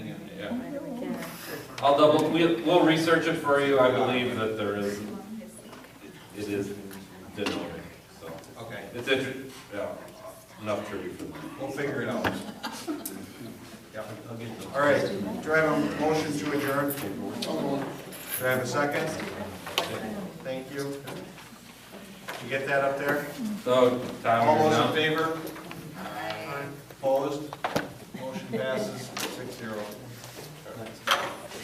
I'll double, we, we'll research it for you, I believe that there is, it is denoted, so. Okay, It's inter, yeah, enough trivia for that. we'll figure it out. Yeah, I'll get them. All right, do I have a motion to adjourn? Do I have a second? Thank you. Did you get that up there? So, Tom, All you're those in now, favor? Opposed? Motion passes six zero.